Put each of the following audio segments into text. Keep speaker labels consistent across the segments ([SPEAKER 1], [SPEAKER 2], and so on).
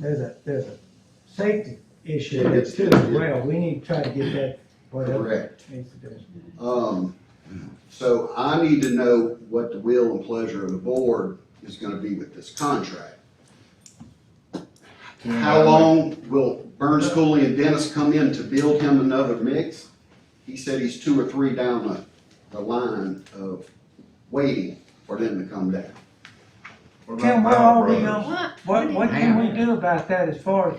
[SPEAKER 1] there's a, there's a safety issue
[SPEAKER 2] It
[SPEAKER 1] that's
[SPEAKER 2] is,
[SPEAKER 1] too
[SPEAKER 2] yeah.
[SPEAKER 1] as well. We need to try to get that, whatever
[SPEAKER 2] Correct.
[SPEAKER 1] needs to do.
[SPEAKER 2] Um, so I need to know what the will and pleasure of the board is gonna be with this contract.
[SPEAKER 3] Mm-hmm.
[SPEAKER 2] How long will Burns Cooley and Dennis come in to build him another mix? He said he's two or three down the, the line of waiting for them to come down.
[SPEAKER 3] What about
[SPEAKER 1] Tim, what
[SPEAKER 3] Powell
[SPEAKER 1] are we
[SPEAKER 3] Brothers?
[SPEAKER 1] gonna,
[SPEAKER 4] What?
[SPEAKER 1] what, what can we do about that as far as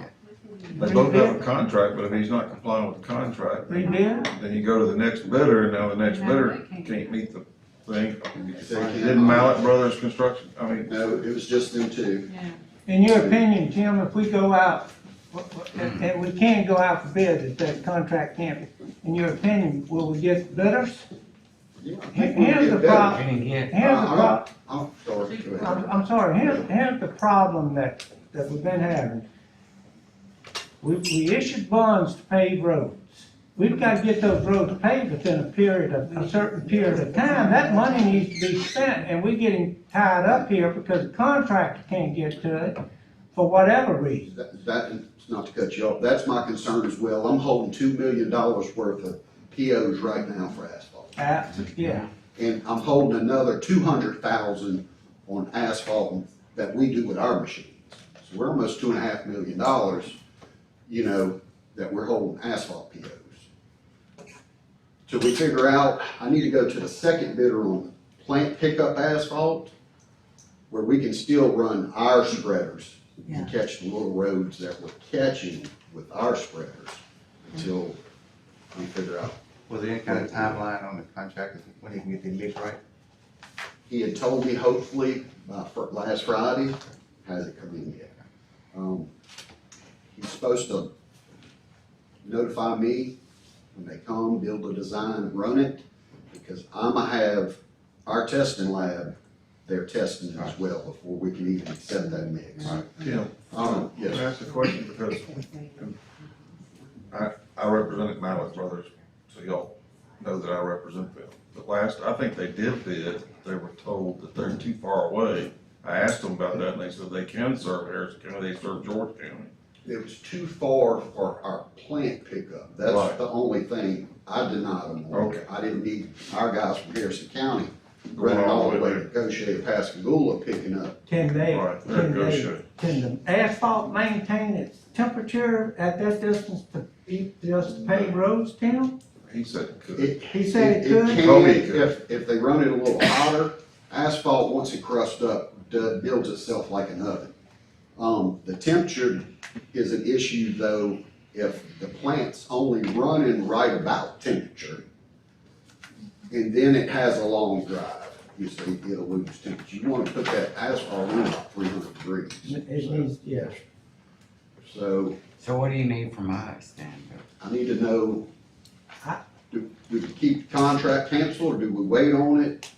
[SPEAKER 3] They both have a contract, but if he's not complying with the contract,
[SPEAKER 1] rebuild?
[SPEAKER 3] then you go to the next bidder, and now the next
[SPEAKER 4] No,
[SPEAKER 3] bidder
[SPEAKER 4] they can't.
[SPEAKER 3] can't meet the thing.
[SPEAKER 2] They can't.
[SPEAKER 3] Didn't Mallett Brothers Construction, I mean,
[SPEAKER 2] No, it was just them two.
[SPEAKER 4] Yeah.
[SPEAKER 1] In your opinion, Tim, if we go out, what- what- and and we can go out for bids if that contract can't, in your opinion, will we get bidders?
[SPEAKER 2] Yeah, I
[SPEAKER 1] Here-
[SPEAKER 2] think we'll
[SPEAKER 1] Here's
[SPEAKER 2] get
[SPEAKER 1] the
[SPEAKER 2] better.
[SPEAKER 1] problem,
[SPEAKER 5] Getting hit.
[SPEAKER 1] here's the
[SPEAKER 2] Uh,
[SPEAKER 1] problem.
[SPEAKER 2] I'm sorry, go ahead.
[SPEAKER 1] I'm, I'm sorry, here's, here's the problem that, that we've been having. We, we issued bonds to pave roads. We've got to get those roads paved within a period of, a certain period of time. That money needs to be spent, and we're getting tied up here because the contractor can't get to it for whatever reason.
[SPEAKER 2] That, that, not to cut you off, that's my concern as well. I'm holding two million dollars worth of POs right now for asphalt.
[SPEAKER 1] Uh, yeah,
[SPEAKER 2] And I'm holding another two hundred thousand on asphalt that we do with our machines. So we're almost two and a half million dollars, you know, that we're holding asphalt POs. Till we figure out, I need to go to the second bidder on plant pickup asphalt, where we can still run our spreaders
[SPEAKER 4] Yeah.
[SPEAKER 2] and catch the little roads that we're catching with our spreaders until we figure out
[SPEAKER 5] Was there any kind of timeline on the contract, when they can get their mix right?
[SPEAKER 2] He had told me hopefully by fr- last Friday, hasn't come in yet. Um, He's supposed to notify me when they come, build a design, run it, because I'ma have our testing lab, they're testing as well before we can even accept that mix.
[SPEAKER 3] Tim,
[SPEAKER 2] Um,
[SPEAKER 3] can I
[SPEAKER 2] yes,
[SPEAKER 3] ask a question, because I, I represented Mallett Brothers, so y'all know that I represent them. The last, I think they did bid, they were told that they're too far away. I asked them about that, and they said they can serve Harrison County, they serve George County.
[SPEAKER 2] it was too far for our plant pickup. That's
[SPEAKER 3] Right.
[SPEAKER 2] the only thing I denied them. on.
[SPEAKER 3] Okay.
[SPEAKER 2] I didn't need our guys from Harrison County
[SPEAKER 3] Going
[SPEAKER 2] running all the way to Goshen and Pascagoula picking up
[SPEAKER 1] can they,
[SPEAKER 3] Right, there
[SPEAKER 1] can
[SPEAKER 3] goes
[SPEAKER 1] they,
[SPEAKER 3] you.
[SPEAKER 1] can the asphalt maintain its temperature at that distance to, be- just pave roads, Tim?
[SPEAKER 3] He said it could.
[SPEAKER 2] It,
[SPEAKER 1] He said it could?
[SPEAKER 2] can,
[SPEAKER 3] Told me it could.
[SPEAKER 2] if, if they run it a little hotter, asphalt, once it crusts up, do- builds itself like an oven. Um, the temperature is an issue though, if the plant's only running right about temperature. And then it has a long drive, you see, it'll lose temperature, you wanna put that asphalt in about three hundred degrees.
[SPEAKER 1] It needs, yeah.
[SPEAKER 2] So,
[SPEAKER 5] So what do you need from us then?
[SPEAKER 2] I need to know,
[SPEAKER 1] I-
[SPEAKER 2] do we keep the contract canceled, or do we wait on it?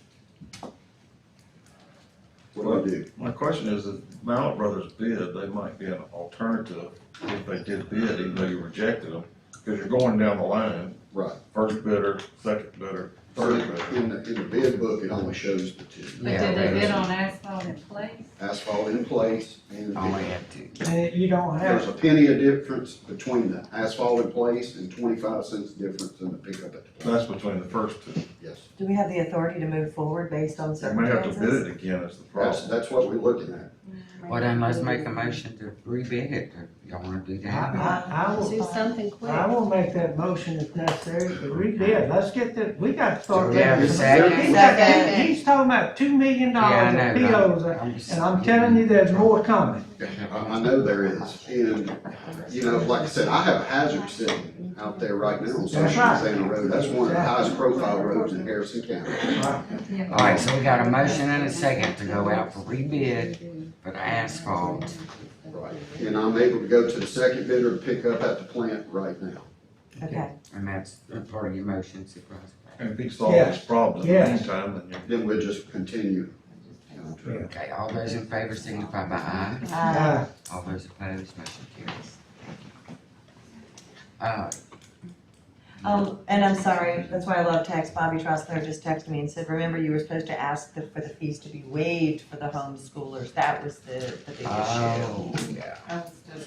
[SPEAKER 2] What do we do?
[SPEAKER 3] My question is, if Mallett Brothers bid, they might be an alternative if they did bid, even though you rejected them. Because you're going down the line,
[SPEAKER 2] Right.
[SPEAKER 3] first bidder, second bidder,
[SPEAKER 2] So
[SPEAKER 3] third bidder.
[SPEAKER 2] in the, in the bid book, it only shows the two,
[SPEAKER 4] But did they bid on asphalt in place?
[SPEAKER 2] asphalt in place and
[SPEAKER 5] Only
[SPEAKER 2] the-
[SPEAKER 5] have two.
[SPEAKER 1] And you don't have.
[SPEAKER 2] there's a penny of difference between the asphalt in place and twenty-five cents difference in the pickup at the plant.
[SPEAKER 3] That's between the first two.
[SPEAKER 2] Yes,
[SPEAKER 6] Do we have the authority to move forward based on
[SPEAKER 3] You may have to
[SPEAKER 6] circumstances?
[SPEAKER 3] bid it again is the
[SPEAKER 2] that's,
[SPEAKER 3] problem.
[SPEAKER 2] that's what we're looking at.
[SPEAKER 5] Well, then let's make a motion to rebid it. Y'all wanna do
[SPEAKER 1] I,
[SPEAKER 5] that?
[SPEAKER 1] I, I
[SPEAKER 4] Do
[SPEAKER 1] will,
[SPEAKER 4] something quick.
[SPEAKER 1] I will make that motion if necessary, but rebid, let's get the, we gotta start.
[SPEAKER 5] Do we have a
[SPEAKER 1] making-
[SPEAKER 5] second?
[SPEAKER 1] He's got-
[SPEAKER 6] Second.
[SPEAKER 1] He's talking about two million
[SPEAKER 5] Yeah,
[SPEAKER 1] dollars
[SPEAKER 5] I
[SPEAKER 1] of
[SPEAKER 5] know,
[SPEAKER 1] POs,
[SPEAKER 5] but I'm- I'm
[SPEAKER 1] uh, and
[SPEAKER 5] just-
[SPEAKER 1] I'm telling you, there's more coming.
[SPEAKER 2] I, I know there is, and, you know, like I said, I have a hazard sitting out there right now on South
[SPEAKER 1] That's right.
[SPEAKER 2] Susanna Road, that's one of the highest profile roads in Harrison County.
[SPEAKER 5] All right, so we got a motion and a second to go out for rebid for the asphalt.
[SPEAKER 2] Right. And I'm able to go to the second bidder to pick up at the plant right now.
[SPEAKER 6] Okay,
[SPEAKER 5] And that's part of your motion, Supervisor.
[SPEAKER 3] And if he solves this problem in the
[SPEAKER 1] Yes.
[SPEAKER 3] meantime, then you.
[SPEAKER 2] Then we'll just continue. you know, to-
[SPEAKER 5] Okay, all those in favor signify by aye.
[SPEAKER 6] uh,
[SPEAKER 5] All those opposed, motion carries. Uh,
[SPEAKER 6] Um, and I'm sorry, that's why I love text, Bobby Trostler just texted me and said, remember, you were supposed to ask the- for the fees to be waived for the homeschoolers, that was the, the big issue.
[SPEAKER 5] Oh, yeah.
[SPEAKER 4] I was just